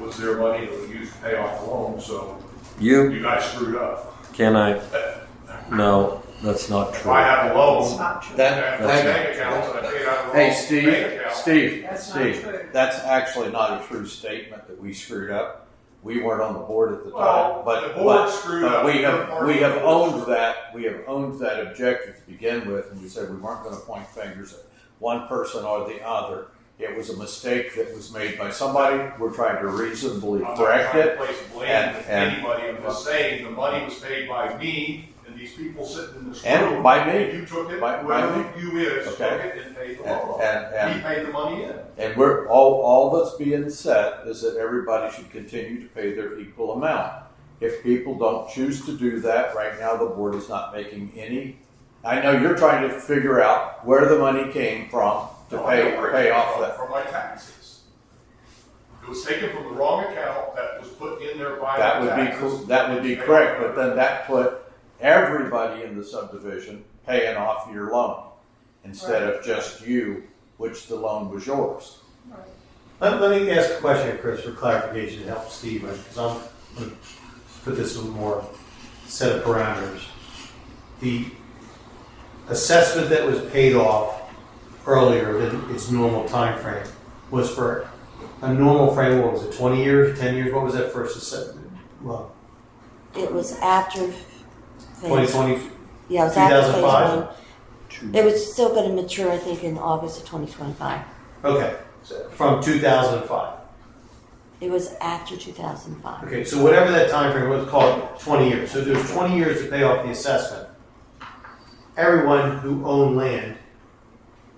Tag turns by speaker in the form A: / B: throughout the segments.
A: was their money that we used to pay off the loan, so
B: You
A: you guys screwed up.
B: can I? No, that's not
A: If I
B: true.
A: have a
C: That's
A: loan,
C: not true.
A: I
D: That,
A: have a
D: that,
A: bank account, that I paid out of the loan.
D: hey,
A: bank
D: Steve,
A: account.
D: Steve,
C: That's not
D: Steve,
C: true.
D: that's actually not a true statement that we screwed up. We weren't on the board at the
A: Well,
D: time,
A: the
D: but,
A: board
D: but,
A: screwed up.
D: but
A: Third
D: we have,
A: party
D: we have
A: board screwed
D: owned
A: up.
D: that, we have owned that objective to begin with, and we said we weren't gonna point fingers at one person or the other. It was a mistake that was made by somebody, we're trying to reasonably
A: I'm not
D: correct
A: trying to
D: it.
A: place blame
D: and-
A: with
D: and-
A: anybody, I'm just saying, the money was paid by me and these people sitting in this room.
D: And by me.
A: You took it,
D: By- by
A: whoever
D: me.
A: you is, took
D: Okay.
A: it and paid the
D: And,
A: loan off.
D: and, and
A: He paid the money in.
D: And we're, all, all that's being said is that everybody should continue to pay their equal amount. If people don't choose to do that, right now the board is not making any, I know you're trying to figure out where the money came from to
A: No, I
D: pay,
A: know where it
D: pay
A: came
D: off
A: from,
D: that.
A: From my taxes. It was taken from the wrong account that was put in there by
D: That
A: the
D: would be,
A: taxes.
D: cor- that would be correct, but then that put everybody in the subdivision paying off your loan instead of just you, which the loan was yours.
C: Right.
E: Let, let me ask a question, Chris, for clarification to help Steve, because I'm going to put this in more set of parameters. The assessment that was paid off earlier than its normal time frame was for a normal frame, what was it, 20 years, 10 years? What was that first assessment? Well,
F: It was after. phase-
E: 2020,
F: Yeah, it was after phase
E: 2005?
F: one. It was still going to mature, I think, in August of 2025.
E: okay, so from 2005.
F: It was after 2005.
E: Okay, so whatever that time frame was called, twenty years. So if there's twenty years to pay off the assessment. Everyone who owned land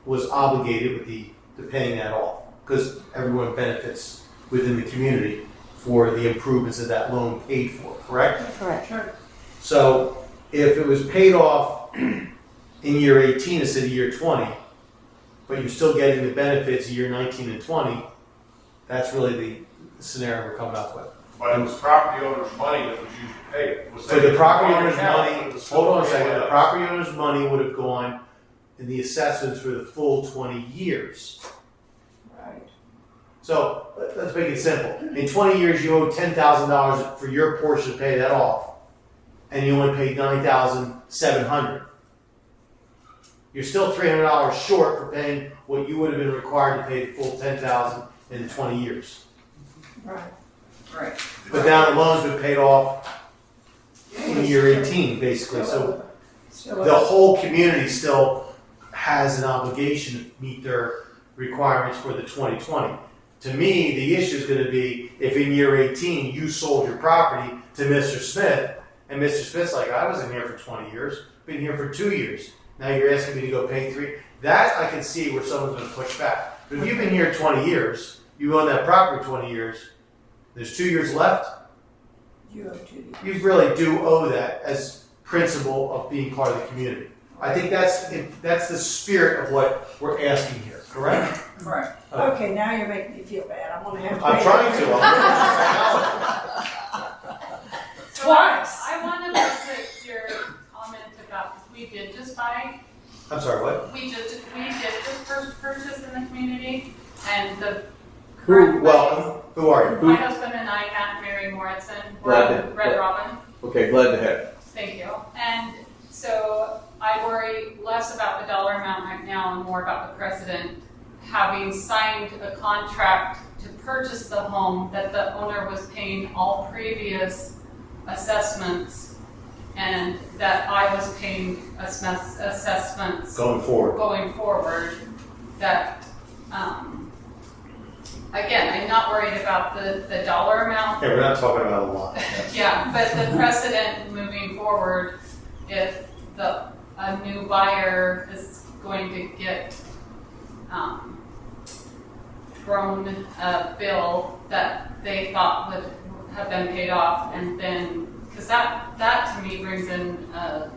E: was obligated with the to paying that off because everyone benefits within the community for the improvements that that loan paid for. Correct.
F: Correct.
C: Sure.
E: So if it was paid off in year eighteen instead of year twenty, but you're still getting the benefits of year nineteen and twenty, that's really the scenario we're coming up with.
A: But it was property owner's money that was used to pay it. Was
E: So the
A: taken
E: property
A: from the
E: owner's
A: wrong account,
E: money,
A: but it was
E: hold on a
A: still paid
E: second, the
A: up.
E: property owner's money would have gone in the assessments for the full twenty years.
C: Right.
E: So, let- let's make it simple, in twenty years, you owe ten thousand dollars for your portion to pay that off, and you only paid nine thousand seven hundred. You're still three hundred dollars short for paying what you would have been required to pay the full ten thousand in the twenty years.
C: Right. Right.
E: But now the loan's been paid off in year eighteen, basically, so
C: Still
E: the
C: up.
E: whole community still has an obligation to meet their requirements for the 2020. To me, the issue is going to be if in year 18 you sold your property to Mr. Smith, and Mr. Smith's like, I wasn't here for 20 years, been here for two years. Now you're asking me to go pay three. That I can see where someone's going to push back. But if you've been here 20 years, you own that property 20 years, there's two years left
C: You have to be-
E: you really do owe that as principle of being part of the community. I think that's that's the spirit of what we're asking here. Correct?
C: Right.
E: Okay.
C: Okay, now you're making me feel bad. I'm gonna have to.
E: Uh, I'm trying to. I'm-
G: So I-
C: Twice.
G: I want to put your comment about, we did just buy,
E: I'm sorry. What?
G: we just, we did just first purchase in the community, and the.
D: Who-
G: current-
E: Well, who are you?
G: My husband and I, Aunt Mary Morrison, we're
D: Robin.
G: Red Robin,
D: Okay, glad to have you.
G: thank you. And so I worry less about the dollar amount right now and more about the precedent. Having signed a contract to purchase the home that the owner was paying all previous assessments and that I was paying assess- assessments
E: Going forward.
G: going forward that, um, again, I'm not worried about the, the dollar amount
E: Yeah, we're not talking about a lot.
G: yeah, but the precedent moving forward, if the, a new buyer is going to get, um, thrown a bill that they thought would have been paid off and then, cause that, that to me brings in a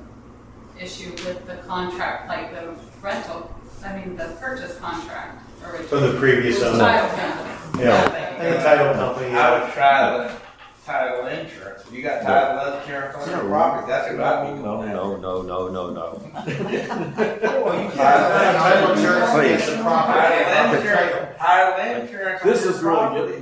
G: issue with the contract, like the rental, I mean, the purchase contract
E: From
G: originally.
E: the previous owner.
G: Title company.
E: Yeah. And the title company. uh,
H: I would try the title insurance. If you got title insurance on your property, that's what I'd be
B: No,
H: going after.
B: no, no, no, no, no.
H: Well, you can't-
E: Title insurance is the property.
H: Title insurance- title insurance on
D: This
H: your
D: is really good.
H: property.